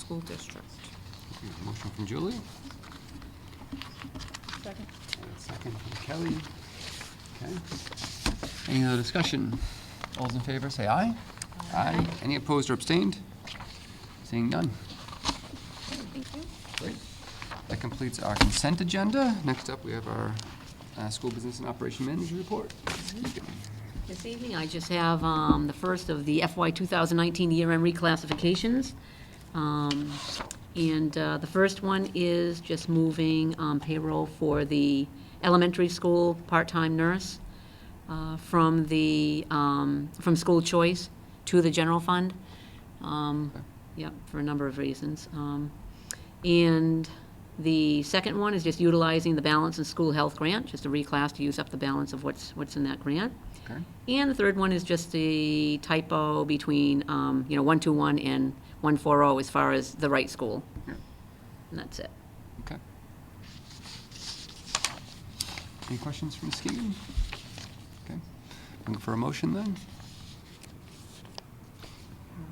School District. Motion from Julie, Second. and a second from Kelly. Okay. Any other discussion? All those in favor, say aye. Aye. Any opposed or abstained? Seeing none. Great. That completes our consent agenda. Next up, we have our uh, School Business and Operation Manager Report. This evening, I just have um, the first of the FY 2019 year-end reclassifications. Um, And uh, the first one is just moving um, payroll for the elementary school part-time nurse uh, from the, um, from school choice to the general fund. Um, Yep, for a number of reasons. Um, And the second one is just utilizing the balance in school health grant, just a reclass to use up the balance of what's, what's in that grant. Okay. And the third one is just a typo between, um, you know, 121 and 140 as far as the right school. Yeah. And that's it. Okay. Any questions from Ms. Keegan? Okay. Looking for a motion then?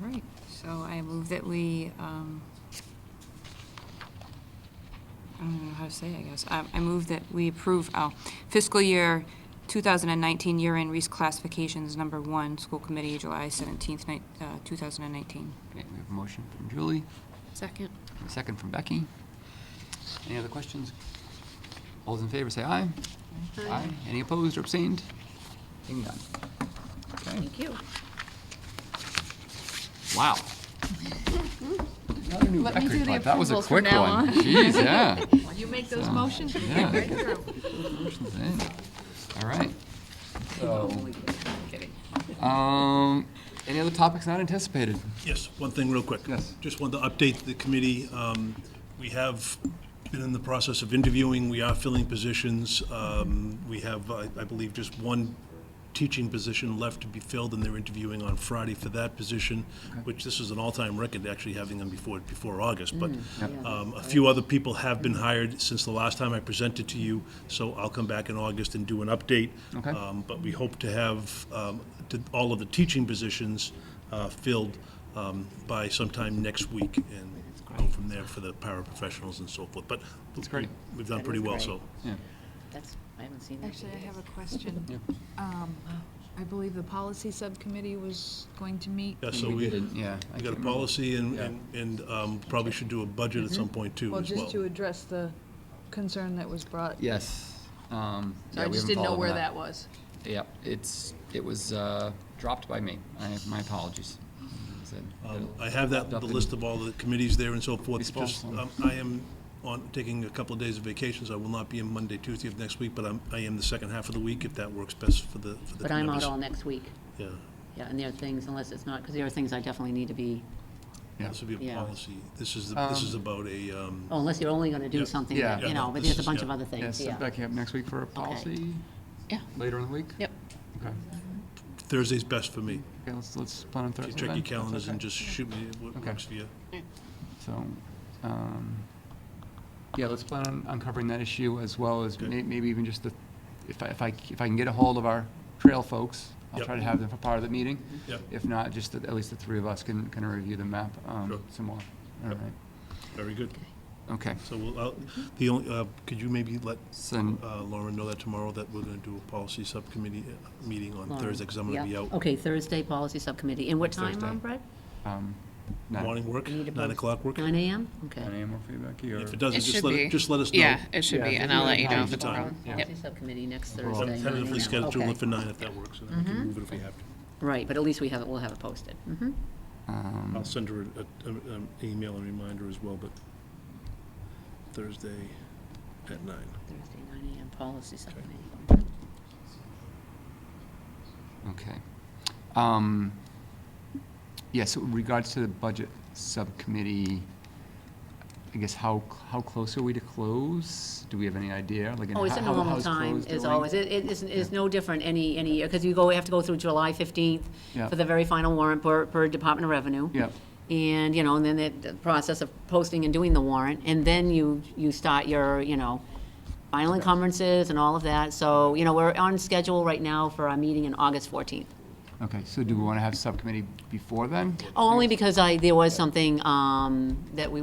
All right, so I move that we, um, I don't even know how to say it, I guess. I I move that we approve, oh, fiscal year 2019 year-end reclassifications, number one, school committee, July 17th, night- uh, 2019. Okay, we have a motion from Julie, Second. and a second from Becky. Any other questions? All those in favor say aye. Aye. Any opposed or abstained? Seeing none. Okay. Thank you. Wow. Another new Let me record, do the but that was a approvals from quick now one. on. Jeez, yeah. You make those motions, we yeah. get right through. Motion's in. All right. So, um, any other topics not anticipated? Yes, one thing real quick. Yes. Just wanted to update the committee. Um, We have been in the process of interviewing, we are filling positions. Um, We have, I I believe, just one teaching position left to be filled, and they're interviewing on Friday for that position, which this is an all-time record, actually having them before, before August. But Mm. um, a few other people have been hired since the last time I presented to you, so I'll come back in August and do an update. Okay. Um, But we hope to have um, to- all of the teaching positions uh, filled um, by sometime next week and go from there for the paraprofessionals and so forth. But great. we've done That pretty is well, great. so. Yeah. That's, I haven't seen that. Actually, I have a question. Um, I believe the policy subcommittee was going to meet. Yeah, so We we, didn't, yeah, I we can't got a remember. policy and, Yeah. and- and um, probably should do a budget Mm-hmm. at some point too Well, as well. just to address the concern that was brought. Yes. Um, So yeah, I we just haven't didn't know followed where that was. Yep, it's, it was, uh, dropped by me. I, my apologies. As I said, Um, it'll- I have that, popped up the in- list of all the committees there and so forth. Baseball. Just, um, I am on, taking a couple of days of vacation, so I will not be in Monday, Tuesday of next week, but I'm, I am the second half of the week, if that works best for the, for the But I'm out members. all next week. Yeah, Yeah, and there are things, unless it's not, because there are things I definitely need to be, this would be a Yeah. policy. This is, the- this is about a, um, oh, unless you're only going to do Yeah. something, Yeah. that, you Yeah, know, no, but this there's a is- bunch yeah. of other things, Yes, yeah. Becky up next week for a policy Yeah. later in the week? Yep. Okay. Thursday's best for me. Okay, let's, let's plan on If Thursday you then. Check your That's calendars okay. and just shoot me what Okay. works for you. So, um, yeah, let's plan on uncovering that issue as well as may- maybe even just the, if I, if I, if I can get a hold of our trail folks, I'll Yep. try to have them for part of the meeting. Yep. If not, just that at least the three of us can, can review the map, Sure. um, some more. All right, Very good. okay. So we'll, I'll- the only, uh, could you maybe let So, n- uh, Lauren know that tomorrow that we're going to do a policy subcommittee uh, meeting on Lauren. Thursday, because I'm going to Yeah. Oh. be out. Okay, Thursday, Policy Subcommittee. And what time, Thursday. um, Brett? um, nine, Morning work, We need to nine post- o'clock work. Nine AM? nine Okay. AM or feedback here. If it doesn't, It just should let, be. it- just let us know. Yeah, it should be, and I'll let you know if it's a Time. problem. Yeah. Policy Subcommittee next Well, Thursday. 9 Tentatively a.m. scheduled Okay. Mm-hmm. it for nine if that works, and then we can move it if we have to. Right, but at least we have it, we'll have it posted. Mhm. Um, I'll send her an email and reminder as well, but Thursday at nine. Thursday, nine AM, policy subcommittee. Okay. Um, Yeah, so in regards to the budget subcommittee, I guess how, how close are we to close? Do we have any idea? Like, and Oh, it's how- a how- normal how's time, close as doing? always. It, it is, is no different any, any year, because you go, we have to go through July fifteenth Yeah. for the very final warrant per, per Department of Revenue. Yeah. And, you know, and then the, the process of posting and doing the warrant, and then you, you start your, you know, final encumbrances and all of that. So, you know, we're on schedule right now for our meeting on August fourteenth. Okay, so do we want to have subcommittee before then? Only because I, there was something um, that we